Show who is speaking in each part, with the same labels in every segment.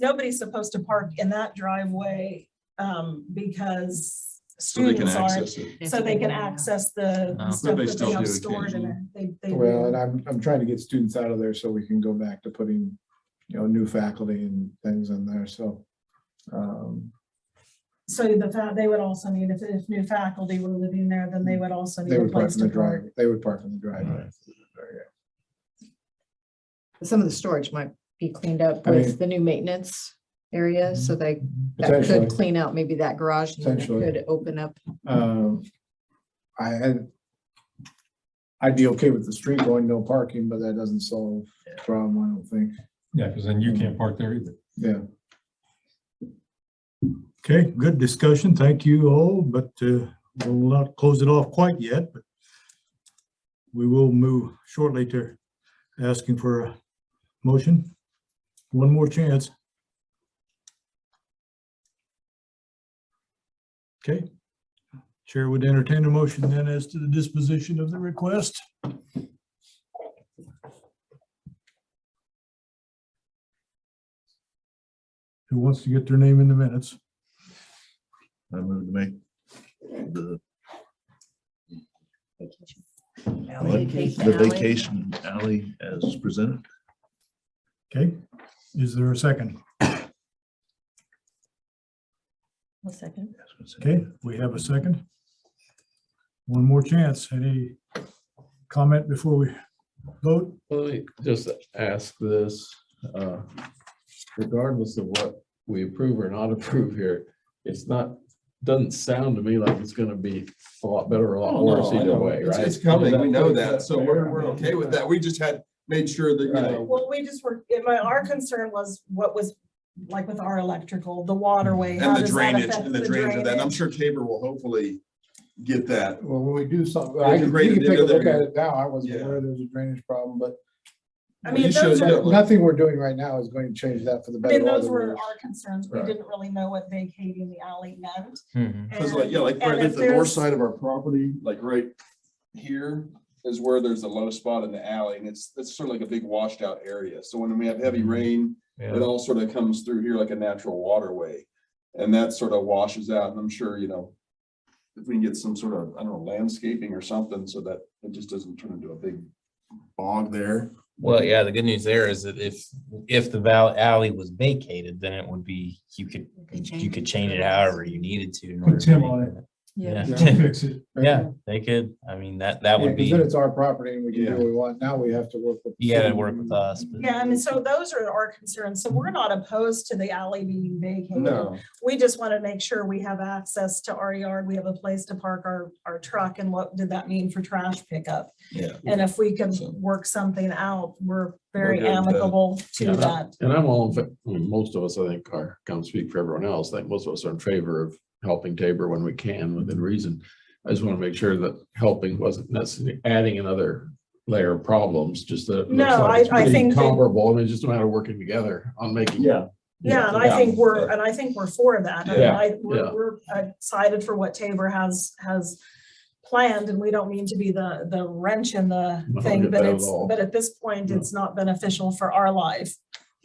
Speaker 1: nobody's supposed to park in that driveway, um, because
Speaker 2: so they can
Speaker 1: students aren't.
Speaker 2: access it.
Speaker 1: So they can access the
Speaker 3: Oh.
Speaker 1: the stuff
Speaker 2: But they
Speaker 1: that
Speaker 2: still
Speaker 1: they have
Speaker 2: do
Speaker 1: stored in there. They, they. do.
Speaker 4: Well, and
Speaker 1: Mm-hmm.
Speaker 4: I'm, I'm trying to get students out of there so we can go back to putting, you know, new faculty and things in there, so. um,
Speaker 1: So the fact, they would also need, if, if new faculty were living there, then they would also need
Speaker 4: They
Speaker 1: a
Speaker 4: would park
Speaker 1: place
Speaker 4: in the
Speaker 1: to park.
Speaker 4: drive, they would park in the driveway.
Speaker 5: Some of the storage might be cleaned up
Speaker 4: I
Speaker 5: with
Speaker 4: mean- Mm-hmm.
Speaker 5: the new maintenance area, so they, that
Speaker 4: Potentially.
Speaker 5: could clean out maybe that garage. and then it
Speaker 4: Potentially.
Speaker 5: Could open up.
Speaker 4: Um, I had. I'd be okay with the street going no parking, but that doesn't solve the problem, I don't think.
Speaker 6: Yeah, because then you
Speaker 3: Mm-hmm.
Speaker 6: can't park there either.
Speaker 4: Yeah,
Speaker 7: Okay, good discussion. Thank you all, but uh, we'll not close it off quite yet, but we will move shortly to asking for a motion. One more chance. Okay. Chair would entertain a motion then as to the disposition of the request. Who wants to get their name in the minutes?
Speaker 8: I move to make the, the vacation alley as presented.
Speaker 7: Okay, is there a second?
Speaker 5: A second.
Speaker 7: Okay, we have a second. One more chance. Any comment before we vote?
Speaker 9: Let me just ask this, uh, regardless of what we approve or not approve here, it's not, doesn't sound to me like it's gonna be a lot better or a lot
Speaker 2: Oh, no,
Speaker 9: worse
Speaker 2: I
Speaker 9: either
Speaker 2: know.
Speaker 9: way,
Speaker 2: It's-
Speaker 9: right?
Speaker 2: It's coming, we know
Speaker 8: Is
Speaker 2: that, so
Speaker 8: fair?
Speaker 2: we're, we're okay with that, we just had made sure that, you
Speaker 9: Right.
Speaker 2: know,
Speaker 1: Well, we just were, it- my, our concern was what was, like with our electrical, the waterway. how
Speaker 2: and the
Speaker 1: does that
Speaker 2: drainage,
Speaker 1: affect
Speaker 2: and the drainage of that, and I'm
Speaker 1: drainage?
Speaker 2: sure Tabor will hopefully get that.
Speaker 4: well, when we do something,
Speaker 2: There's
Speaker 4: I
Speaker 2: a
Speaker 4: can, we
Speaker 2: great
Speaker 4: can take a
Speaker 2: deal
Speaker 4: look
Speaker 2: there.
Speaker 4: at it now. I wasn't
Speaker 2: Yeah.
Speaker 4: aware there was a drainage problem, but
Speaker 1: I
Speaker 2: Well, you
Speaker 1: mean,
Speaker 2: showed
Speaker 1: those
Speaker 2: you
Speaker 1: were,
Speaker 2: look-
Speaker 4: nothing we're doing right now is going to change that for the
Speaker 1: I
Speaker 4: better.
Speaker 1: mean,
Speaker 4: or
Speaker 1: those
Speaker 4: the
Speaker 1: were
Speaker 4: worse.
Speaker 1: our concerns. We
Speaker 2: Right.
Speaker 1: didn't really know what vacating the alley meant.
Speaker 3: Mm-hmm.
Speaker 2: Cause
Speaker 1: And-
Speaker 2: like, yeah, like right
Speaker 1: and
Speaker 2: at
Speaker 1: if
Speaker 2: the north
Speaker 1: there's-
Speaker 2: side of our property, like right here is where there's a low spot in the alley and it's, it's sort of like a big washed out area. So when we have heavy rain, it all sort of comes through here like a natural waterway. And that sort of washes out and I'm sure, you know, if we can get some sort of, I don't know, landscaping or something so that it just doesn't turn into a big bog there.
Speaker 3: Well, yeah, the good news there is that if, if the val- alley was vacated, then it would be, you could, you could change it however you needed to. in order to
Speaker 7: Tim
Speaker 3: make
Speaker 7: on it.
Speaker 3: that.
Speaker 5: Yeah.
Speaker 7: We'll Fix it.
Speaker 3: Yeah, they could, I mean, that, that
Speaker 4: Yeah,
Speaker 3: would
Speaker 4: 'cause
Speaker 3: be,
Speaker 4: then it's our property and we can do
Speaker 2: Yeah.
Speaker 4: what we want. Now we have to work with. the
Speaker 3: you gotta
Speaker 4: city.
Speaker 3: work with us. but-
Speaker 1: Yeah, I mean, so those are our concerns. So we're not opposed to the alley being vacated.
Speaker 2: No,
Speaker 1: We just want to make sure we have access to our yard. We have a place to park our, our truck and what did that mean for trash pickup?
Speaker 2: yeah.
Speaker 1: And if we can
Speaker 2: So-
Speaker 1: work something out, we're
Speaker 2: We're
Speaker 1: very
Speaker 2: good with that.
Speaker 1: amicable
Speaker 9: Yeah.
Speaker 1: to that.
Speaker 9: And I'm all, in fa- I mean, most of us, I think, are, come speak for everyone else, like most of us are in favor of helping Tabor when we can within reason. I just want to make sure that helping wasn't necessarily adding another layer of problems, just that. it looks
Speaker 1: No,
Speaker 9: like it's
Speaker 1: I- I
Speaker 9: pretty
Speaker 1: think that-
Speaker 9: Comparable, and it's just a matter of working together on making.
Speaker 2: Yeah.
Speaker 1: Yeah, and I think we're, and I think we're for that. And
Speaker 9: Yeah,
Speaker 1: I, we're,
Speaker 9: yeah.
Speaker 1: we're excited for what Tabor has, has planned and we don't mean to be the, the wrench in the
Speaker 9: No,
Speaker 1: thing,
Speaker 9: not
Speaker 1: but
Speaker 9: at
Speaker 1: it's,
Speaker 9: all.
Speaker 1: but at this point,
Speaker 9: No.
Speaker 1: it's not beneficial for our life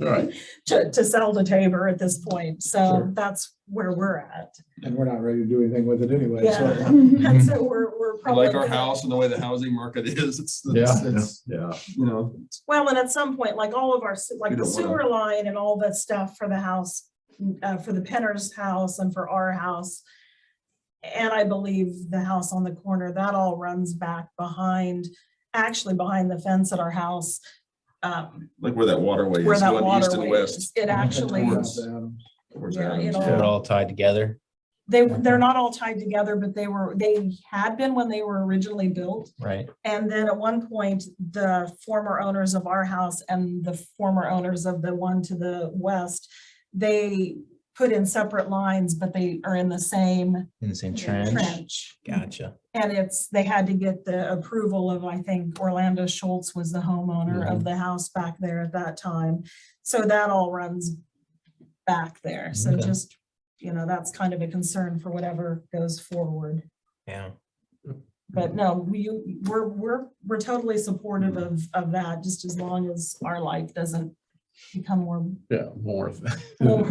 Speaker 9: All right.
Speaker 1: to, to sell to Tabor at this point. So
Speaker 9: Sure.
Speaker 1: that's where we're at.
Speaker 4: And we're not ready to do anything with it anyway,
Speaker 1: Yeah.
Speaker 4: so.
Speaker 1: And so we're, we're
Speaker 2: I
Speaker 1: probably.
Speaker 2: Like our
Speaker 1: gonna-
Speaker 2: house and the way the housing market is, it's,
Speaker 9: Yeah,
Speaker 2: it's, it's,
Speaker 9: yeah.
Speaker 2: you know,
Speaker 1: Well, and at some point, like all of our, se- like
Speaker 2: We
Speaker 1: the
Speaker 2: don't wanna-
Speaker 1: sewer line and all that stuff for the house, uh, for the Penner's house and for our house. And I believe the house on the corner, that all runs back behind, actually behind the fence at our house. um,
Speaker 2: like where that waterway
Speaker 1: Where
Speaker 2: is
Speaker 1: that
Speaker 2: going east and
Speaker 1: waterway
Speaker 2: west.
Speaker 1: is. It actually,
Speaker 2: Towards- towards
Speaker 1: Yeah,
Speaker 2: Adams.
Speaker 1: it
Speaker 3: Get it all tied together.
Speaker 1: they, they're not all tied together, but they were, they had been when they were originally built.
Speaker 3: Right.
Speaker 1: And then at one point, the former owners of our house and the former owners of the one to the west, they put in separate lines, but they are in the same
Speaker 3: In the same trench.
Speaker 1: trench.
Speaker 3: Gotcha.
Speaker 1: And it's, they had to get the approval of, I think Orlando Schultz was the homeowner
Speaker 3: Mm-hmm.
Speaker 1: of the house back there at that time. So that all runs back there. So
Speaker 3: Okay.
Speaker 1: just, you know, that's kind of a concern for whatever goes forward.
Speaker 3: Yeah.
Speaker 1: But no, we, we're, we're, we're totally supportive of, of that, just as long as our life doesn't
Speaker 9: become more
Speaker 1: Yeah, more.
Speaker 9: more